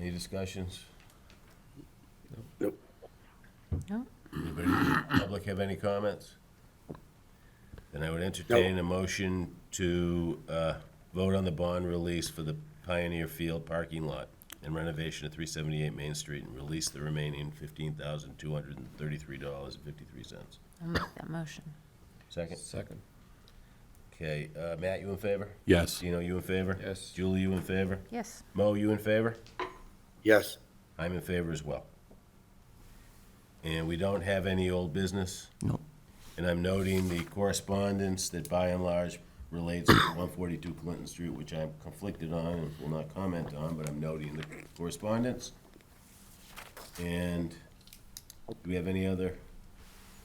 Any discussions? Nope. No. Anybody in the public have any comments? Then I would entertain a motion to uh, vote on the bond release for the Pioneer Field parking lot and renovation of 378 Main Street and release the remaining $15,233.53. I'll make that motion. Second? Second. Okay, uh, Matt, you in favor? Yes. Dino, you in favor? Yes. Julie, you in favor? Yes, Mo, you in favor? Yes. I'm in favor as well. And we don't have any old business. No. And I'm noting the correspondence that by and large relates to 142 Clinton Street, which I'm conflicted on and will not comment on, but I'm noting the correspondence. And do we have any other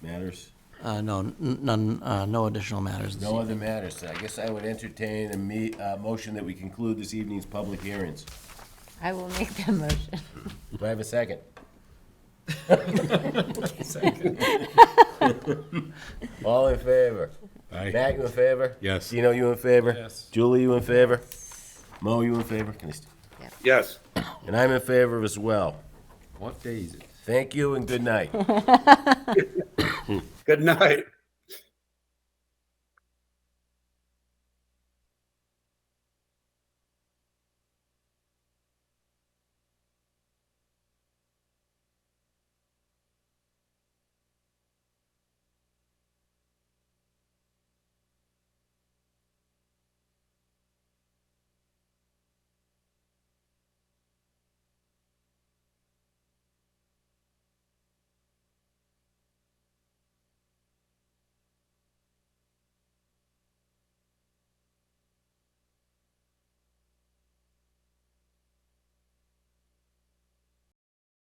matters? Uh, no, n- none, uh, no additional matters. No other matters. I guess I would entertain a me, uh motion that we conclude this evening's public hearings. I will make that motion. Do I have a second? All in favor? Aye. Matt, you in favor? Yes. Dino, you in favor? Yes. Julie, you in favor? Mo, you in favor? Can I st- Yes. And I'm in favor as well. What day is it? Thank you and good night. Good night.